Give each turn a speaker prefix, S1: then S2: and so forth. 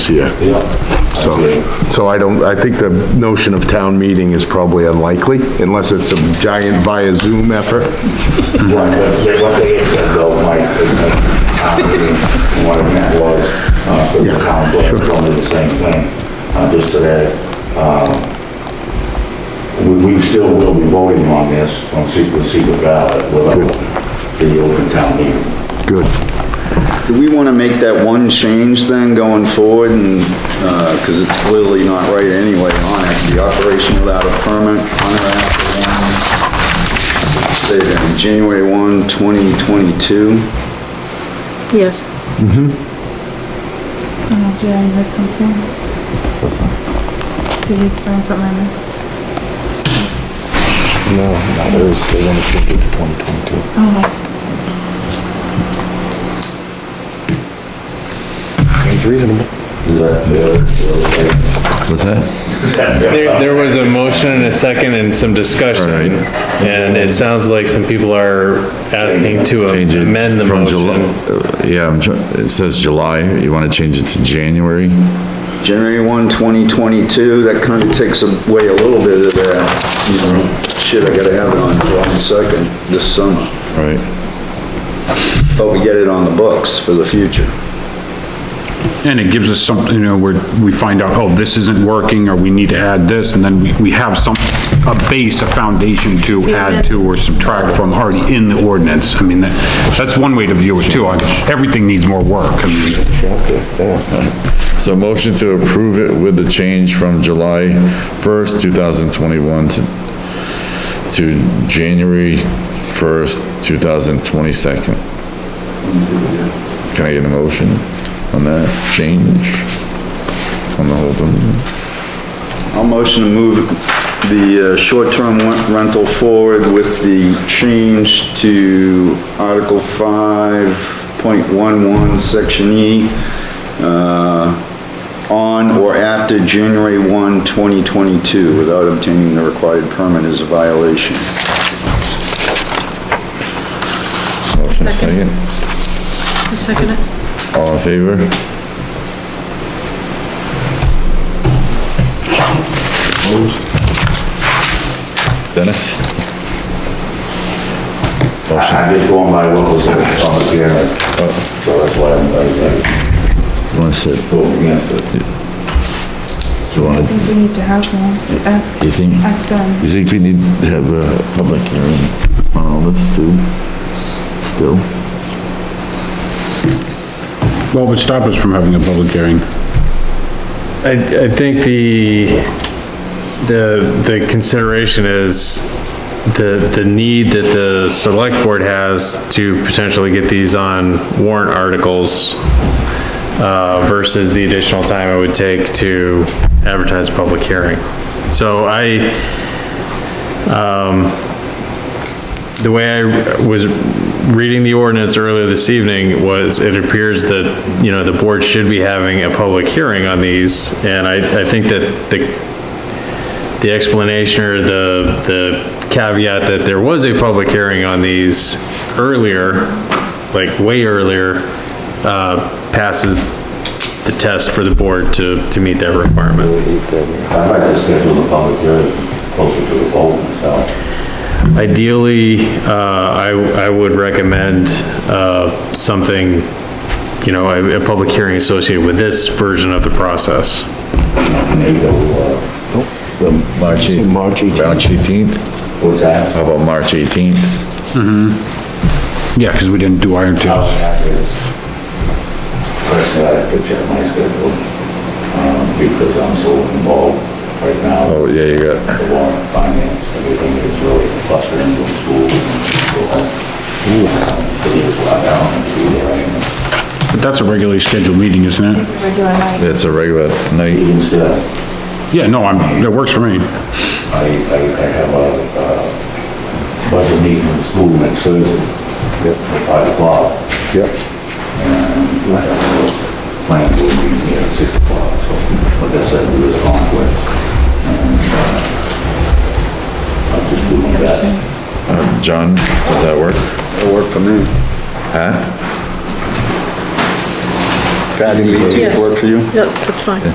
S1: year. So, so I don't, I think the notion of town meeting is probably unlikely, unless it's a giant via Zoom effort.
S2: What they, what they had said though, Mike, and, uh, what it meant was, uh, the town board told me the same thing, uh, just today. Um, we, we still will be voting on this, on secret, secret ballot without the open town meeting.
S1: Good.
S3: Do we want to make that one change then going forward and, uh 'cause cause it's clearly not right anyway on it, the operation without a permit, contract, say then, January 1, 2022?
S4: Yes.
S5: Oh, did I miss something? Did we find something I missed? No, no, there was, they
S6: What's that?
S7: There, there was a motion and a second and some discussion,
S6: Alright.
S7: and it sounds like some people are asking to
S6: Change it
S7: amend the
S6: from Jul-
S7: motion.
S6: uh, Yeah, I'm try- it says July, you want to change it to January?
S3: January 1, 2022, that kind of takes away a little bit of that, you know, shit, I gotta have it on July 2nd this summer,
S6: All right.
S3: but we get it on the books for the future.
S8: And it gives us something, you know, where we find out, oh, this isn't working, or we need to add this, and then we, we have some, a base, a foundation to add to or subtract from already in the ordinance. I mean, that, that's one way to view it too. I- Everything needs more work. I mean,
S6: So motion to approve it with the change from July 1st, 2021 to, to January 1st, 2022. Can I get a motion on that change? On the whole thing?
S3: I'll motion to move the uh, short-term wen- rental forward with the change to Article 5.11, Section E, uh, on or after January 1, 2022, without obtaining the required permit is a violation.
S6: Motion second.
S4: I second it.
S6: All in favor? Dennis? Motion.
S2: I- I'm just going by what was on the hearing, so that's why I'm, I'm,
S6: Want to sit?
S2: I'm voting against it.
S6: Do you want
S5: were
S6: to,
S5: voting on. Oh, I see. I think we need to have one. Ask,
S6: you think,
S5: ask Ben.
S6: you think we need to have a public hearing on all this too? Still?
S8: What would stop us from having a public hearing?
S7: I, I think the, the, the consideration is the, the need that the select board has to potentially get these on warrant articles uh, versus the additional time it would take to advertise a public hearing. So I, the way I was reading the ordinance earlier this evening was, it appears that, you know, the board should be having a public hearing on these, and I, I think that the, the explanation or the, the caveat that there was a public hearing on these earlier, like way earlier, uh, passes the test for the board to, to meet that requirement.
S2: I'd like to schedule the public hearing closer to the vote, so.
S7: Ideally, uh, I, I would recommend, uh, something, you know, a, a public hearing associated with this version of the process.
S2: Maybe, uh,
S6: March 18th. March 18th?
S2: what's that?
S6: How about March 18th?
S8: Yeah, because we didn't do iron
S2: How
S8: tips.
S2: that is. Personally, I could check my schedule, um, because I'm so involved right now
S6: Oh,
S2: with
S6: yeah, you got,
S2: the warrant finance, everything is really clustered into school and school. Because it's a lot down and see where I am.
S8: But that's a regularly scheduled meeting, isn't it?
S5: It's a regular night.
S6: it's a regular night.
S2: Even still,
S8: Yeah, no, I'm, that works for me.
S2: I, I, I have a, uh, budget meeting in school next Thursday at five o'clock.
S1: Yep.
S2: plan will be here at six o'clock, so like I said, there is conflict. and, uh, I'll just do my best.
S6: Uh, John, does that work?
S3: That'll work for me.
S6: Huh?
S9: Patty, do you
S3: Yes.
S9: work for you?
S3: Yep, that's fine.